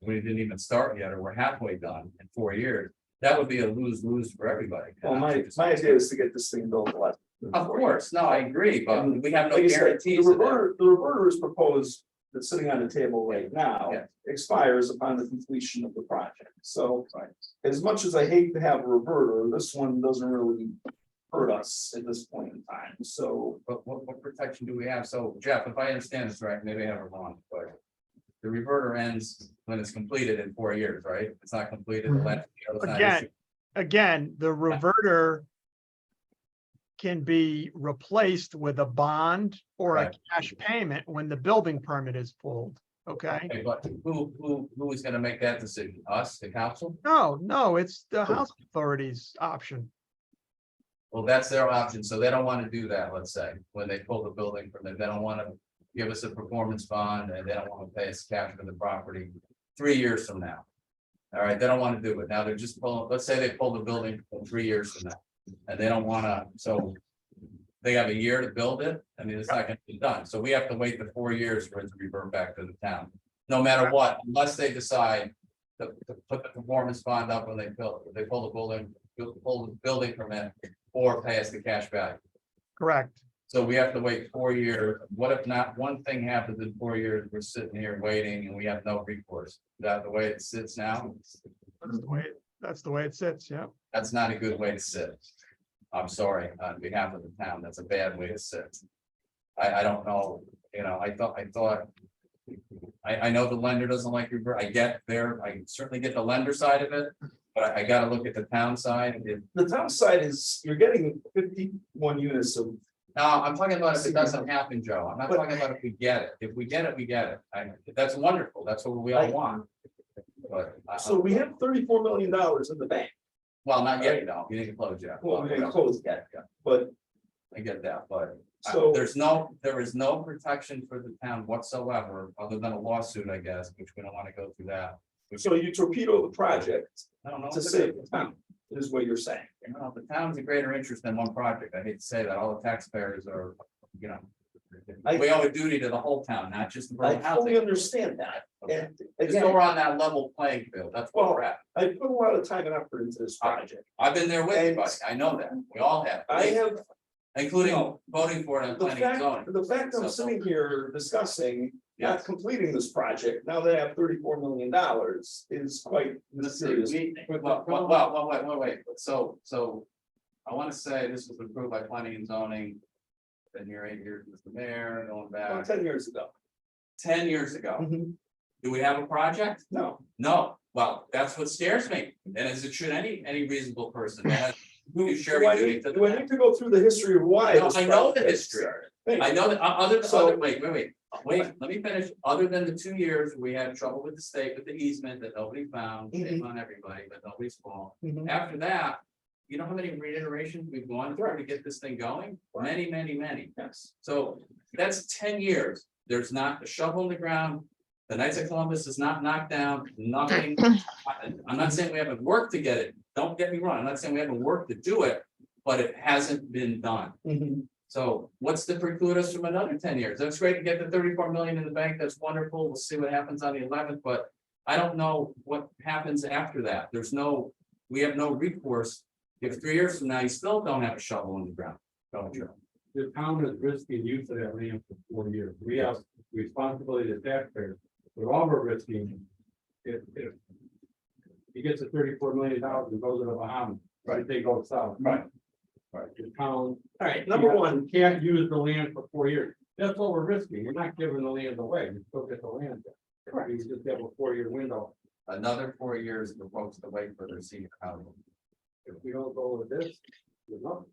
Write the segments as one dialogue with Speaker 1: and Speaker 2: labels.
Speaker 1: we didn't even start yet, or we're halfway done in four years, that would be a lose-lose for everybody.
Speaker 2: Well, my, my idea is to get this thing built. last.
Speaker 1: Of course, no, I agree, but we have no
Speaker 2: Like I said, the
Speaker 1: guarantees. of that.
Speaker 2: reverter, the reverter is proposed, that's sitting on the table right now,
Speaker 1: Yeah.
Speaker 2: expires upon the completion of the project, so. As much as I hate to have a reverter, this one doesn't really hurt us at this point in time, so.
Speaker 1: But what, what protection do we have? So Jeff, if I understand this right, maybe I have it wrong, but the reverter ends when it's completed in four years, right? If It's not completed.
Speaker 2: Mm-hmm.
Speaker 1: the last- the other side
Speaker 3: Again.
Speaker 1: is-
Speaker 3: again, the reverter can be replaced with a bond or a
Speaker 1: Right.
Speaker 3: cash payment when the building permit is pulled, okay?
Speaker 1: Okay, But who, who, who is gonna make that decision? Us, the council?
Speaker 3: No, no, it's the housing authority's option.
Speaker 1: Well, that's their option, so they don't wanna do that, let's say, when they pull the building from them, they don't wanna give us a performance bond, and they don't wanna pay us cash for the property three years from now. All right, they don't wanna do it, now they're just pulling, let's say they pull the building from three years from now, and they don't wanna, so they have a year to build it, I mean, it's not gonna be done, so we have to wait the four years for it to revert back to the town, no matter what, unless they decide to, to put the performance bond up when they build, they pull the building, pull the building permit or pay us the cash value.
Speaker 3: Correct.
Speaker 1: So we have to wait four years. What if not one thing happens in four years? We're sitting here waiting and we have no recourse. Is That the way it sits now,
Speaker 3: That's the way, that's the way it sits, yeah.
Speaker 1: that's not a good way to sit. I'm sorry, on behalf of the town, that's a bad way to sit. I, I don't know, you know, I thought, I thought. I, I know the lender doesn't like your, I get there, I certainly get the lender side of it, but I- I gotta look at the town side. If-
Speaker 2: The downside is, you're getting fifty-one units of
Speaker 1: No, I'm talking about if it doesn't happen, Joe. I'm not
Speaker 2: But-
Speaker 1: talking about if we get it. If we get it, we get it. I, that's wonderful. That's what we all
Speaker 2: I-
Speaker 1: want. But. I-
Speaker 2: So we have thirty-four million dollars in the bank,
Speaker 1: Well, not yet, you know, you need to close yet.
Speaker 2: well, we didn't close yet, but
Speaker 1: I get that, but I-
Speaker 2: so,
Speaker 1: there's no, there is no protection for the town whatsoever, other than a lawsuit, I guess, which we don't want to go through that.
Speaker 2: so you torpedo the project
Speaker 1: I don't know.
Speaker 2: to save the town, is what you're saying.
Speaker 1: You know, the town's a greater interest than one project. I hate to say that. All the taxpayers are, you know.
Speaker 2: I-
Speaker 1: We owe a duty to the whole town, not just the.
Speaker 2: I
Speaker 1: borough
Speaker 2: fully
Speaker 1: housing.
Speaker 2: understand that, and
Speaker 1: Just so
Speaker 2: again,
Speaker 1: we're on that level playing field, that's where we're at.
Speaker 2: I put a lot of time and effort into this project,
Speaker 1: I've been there with everybody, I know that, we all have.
Speaker 2: I have
Speaker 1: Including voting for it and
Speaker 2: The
Speaker 1: planning and zoning.
Speaker 2: fact, the fact I'm sitting here discussing not completing this project, now that I have thirty-four million dollars, is quite a
Speaker 1: Let's see,
Speaker 2: serious.
Speaker 1: we-
Speaker 2: But-
Speaker 1: Well, well, well, well, wait, wait, wait, so, so. I wanna say this was approved by planning and zoning. Then you're eight years as the mayor, going
Speaker 2: About
Speaker 1: back,
Speaker 2: Ten years ago.
Speaker 1: ten years ago,
Speaker 2: Mhm.
Speaker 1: do we have a project?
Speaker 2: No,
Speaker 1: No, well, that's what scares me, and as it should any, any reasonable person, that has-
Speaker 2: do,
Speaker 1: You sure
Speaker 2: do I
Speaker 1: we do
Speaker 2: need,
Speaker 1: it to the
Speaker 2: do I need to go through the history of why?
Speaker 1: No,
Speaker 2: this
Speaker 1: I know the
Speaker 2: project
Speaker 1: history.
Speaker 2: started? Thank
Speaker 1: I
Speaker 2: you.
Speaker 1: know that, o- other,
Speaker 2: So-
Speaker 1: other, wait, wait, wait, wait, let me finish, other than the two years, we had trouble with the state with the easement that nobody found, shame on everybody, but nobody's fault.
Speaker 2: Mhm.
Speaker 1: After that, you know how many reiterations we've gone through to get this thing going? Many, many, many.
Speaker 2: Yes.
Speaker 1: So that's ten years. There's not a shovel in the ground. The Knights of Columbus is not knocked down, nothing. I- I'm not saying we haven't worked to get it. Don't get me wrong. I'm not saying we haven't worked to do it, but it hasn't been done.
Speaker 2: Mhm.
Speaker 1: So what's to preclude us from another ten years? That's great to get the thirty-four million in the bank. That's wonderful. We'll see what happens on the eleventh, but I don't know what happens after that. There's no, we have no recourse. If three years from now, you still don't have a shovel in the ground, don't you?
Speaker 4: the town is risking use of that land for four years. We have responsibility to taxpayers, but all we're risking if, if he gets a thirty-four million dollars and goes to the Bahamas, right, they go south.
Speaker 2: Right.
Speaker 4: Right, the town
Speaker 2: All right, number one,
Speaker 4: can't use the land for four years. That's what we're risking. You're not giving the land away. You still get the land.
Speaker 2: Correct.
Speaker 4: You just have a four-year window.
Speaker 1: Another four years for folks to wait for their senior housing.
Speaker 4: If we don't go with this, there's nothing.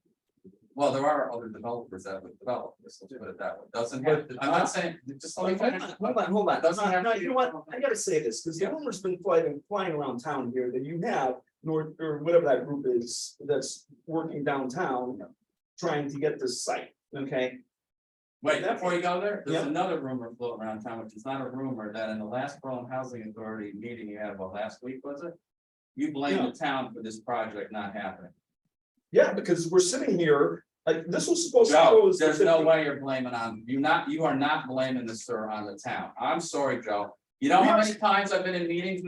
Speaker 1: Well, there are other developers that would develop this, let's put it that way. Doesn't have, to- I'm not saying, just let me
Speaker 2: Hold
Speaker 1: finish.
Speaker 2: on, hold on, hold on.
Speaker 1: Doesn't have
Speaker 2: No,
Speaker 1: to-
Speaker 2: you know what? I gotta say this, because the rumor's been flying, flying around town here that you have North, or whatever that group is, that's working downtown. Trying to get this site, okay?
Speaker 1: Wait, before you go there, there's
Speaker 2: Yeah.
Speaker 1: another rumor floating around town, which is not a rumor, that in the last Berlin Housing Authority meeting you had, well, last week, was it? You blame the town for this project not happening.
Speaker 2: Yeah, because we're sitting here, like, this was supposed to go.
Speaker 1: Joe,
Speaker 2: as the
Speaker 1: there's no
Speaker 2: 50
Speaker 1: way you're blaming on, you not, you are not blaming the sir on the town. I'm sorry, Joe. You know how many times I've been in meetings with